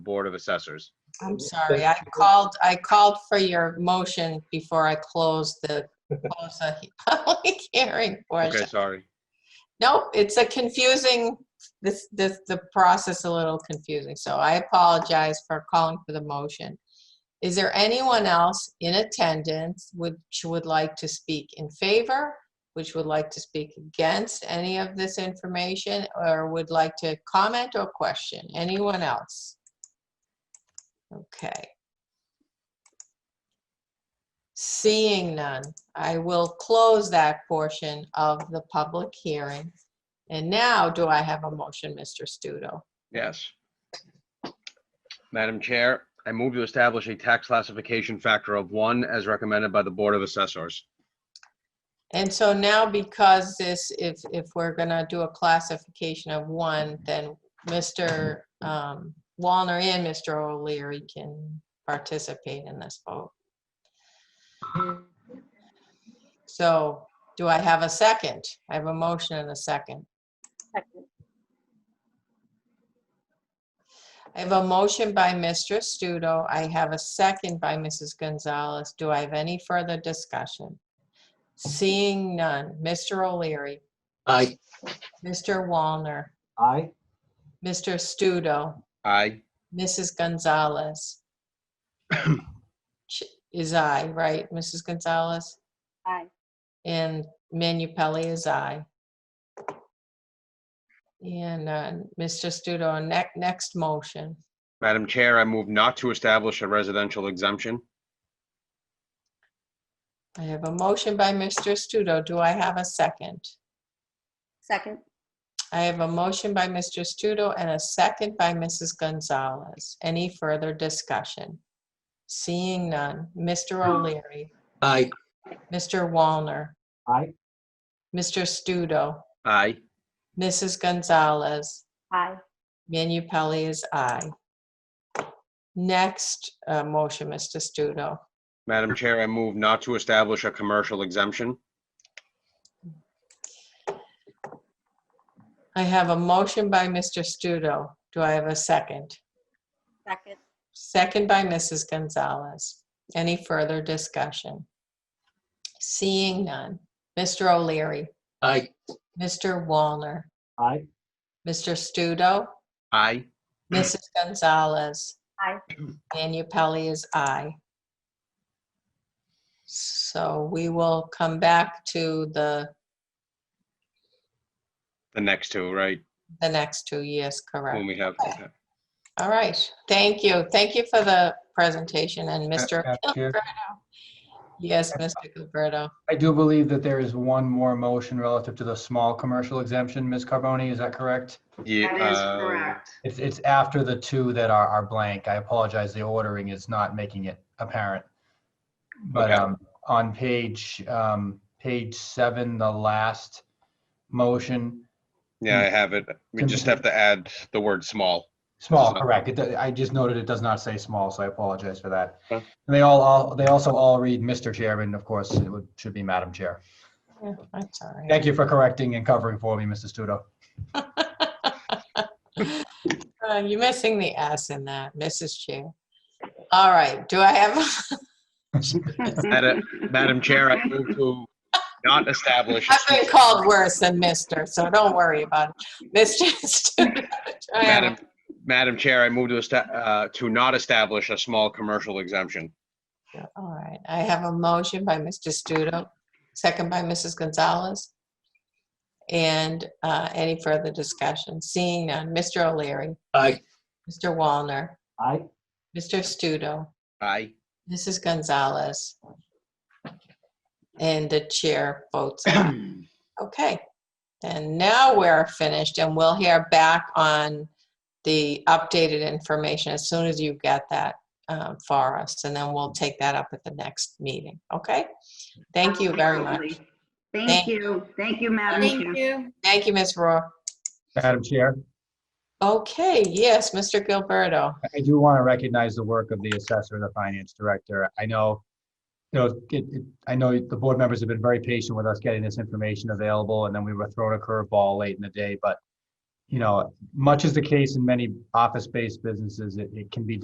Board of Assessors. I'm sorry, I called, I called for your motion before I closed the, closed the public hearing Okay, portion. sorry. Nope, it's a confusing, this, this, the process a little confusing, so I apologize for calling for the motion. Is there anyone else in attendance which would like to speak in favor, which would like to speak against any of this information, or would like to comment or question? Anyone else? Okay. Seeing none, I will close that portion of the public hearing. And now, do I have a motion, Mr. Studo? Yes. Madam Chair, I move to establish a tax classification factor of one as recommended by the Board of Assessors. And so now, because this, if, if we're gonna do a classification of one, then Mr. um, Wallner and Mr. O'Leary can participate in this vote. So, do I have a second? I have a motion and a second. Second. I have a motion by Mr. Studo. I have a second by Mrs. Gonzalez. Do I have any further discussion? Seeing none. Mr. O'Leary, Aye. Mr. Walner, Aye. Mr. Studo, Aye. Mrs. Gonzalez. Ch- Is I, right, Mrs. Gonzalez? Aye. And Manu Pelley is aye. And uh, Mr. Studo, next, next motion. Madam Chair, I move not to establish a residential exemption. I have a motion by Mr. Studo. Do I have a second? Second. I have a motion by Mr. Studo and a second by Mrs. Gonzalez. Any further discussion? Seeing none. Mr. O'Leary, Aye. Mr. Walner, Aye. Mr. Studo, Aye. Mrs. Gonzalez, Aye. Manu Pelley is aye. Next uh, motion, Mr. Studo. Madam Chair, I move not to establish a commercial exemption. I have a motion by Mr. Studo. Do I have a second? Second. Second by Mrs. Gonzalez. Any further discussion? Seeing none. Mr. O'Leary, Aye. Mr. Walner, Aye. Mr. Studo, Aye. Mrs. Gonzalez. Aye. Manu Pelley is aye. So we will come back to the, The next two, right? the next two years, When correct? we have, Correct. All right, thank you. Thank you for the presentation and Mr. Madam Chair. Gilberto. Yes, Mr. Gilberto. I do believe that there is one more motion relative to the small commercial exemption. Ms. Carboni, is that correct? yeah. That is uh, correct. It's, it's after the two that are, are blank. I apologize, the ordering is not making it apparent. But Okay. um, on page, um, page seven, the last motion, Yeah, I have it. We just have to add the word small. small, So- correct. It do- I just noted it does not say small, so I apologize for that. And Okay. they all, all, they also all read Mr. Chairman, of course, it would, should be Madam Chair. Yeah, That's all right. Thank you for correcting and covering for me, Mr. Studo. Uh, You're missing the S in that, Mrs. Chair. All right, do I have, Madam Madam Chair, I move to not establish. I've been called worse than Mr., so don't worry about it. Mr. Studo. do I have a- Madam, Madam Chair, I move to esta- uh, to not establish a small commercial exemption. All right, I have a motion by Mr. Studo, second by Mrs. Gonzalez. And uh, any further discussion? Seeing none. Mr. O'Leary, Aye. Mr. Walner, Aye. Mr. Studo, Aye. Mrs. Gonzalez. And the chair votes aye. Okay, and now we're finished and we'll hear back on the updated information as soon as you get that um, for us. And then we'll take that up at the next meeting, okay? Thank you very much. Absolutely. Thank Thank- you. Thank you, Madam Chair. Thank you. Thank you, Ms. Rohr. Madam Chair, Okay, yes, Mr. Gilberto. I do want to recognize the work of the assessor, the finance director. I know, you know, it, it, I know the board members have been very patient with us getting this information available, and then we were thrown a curveball late in the day, but you know, much is the case in many office-based businesses, it, it can be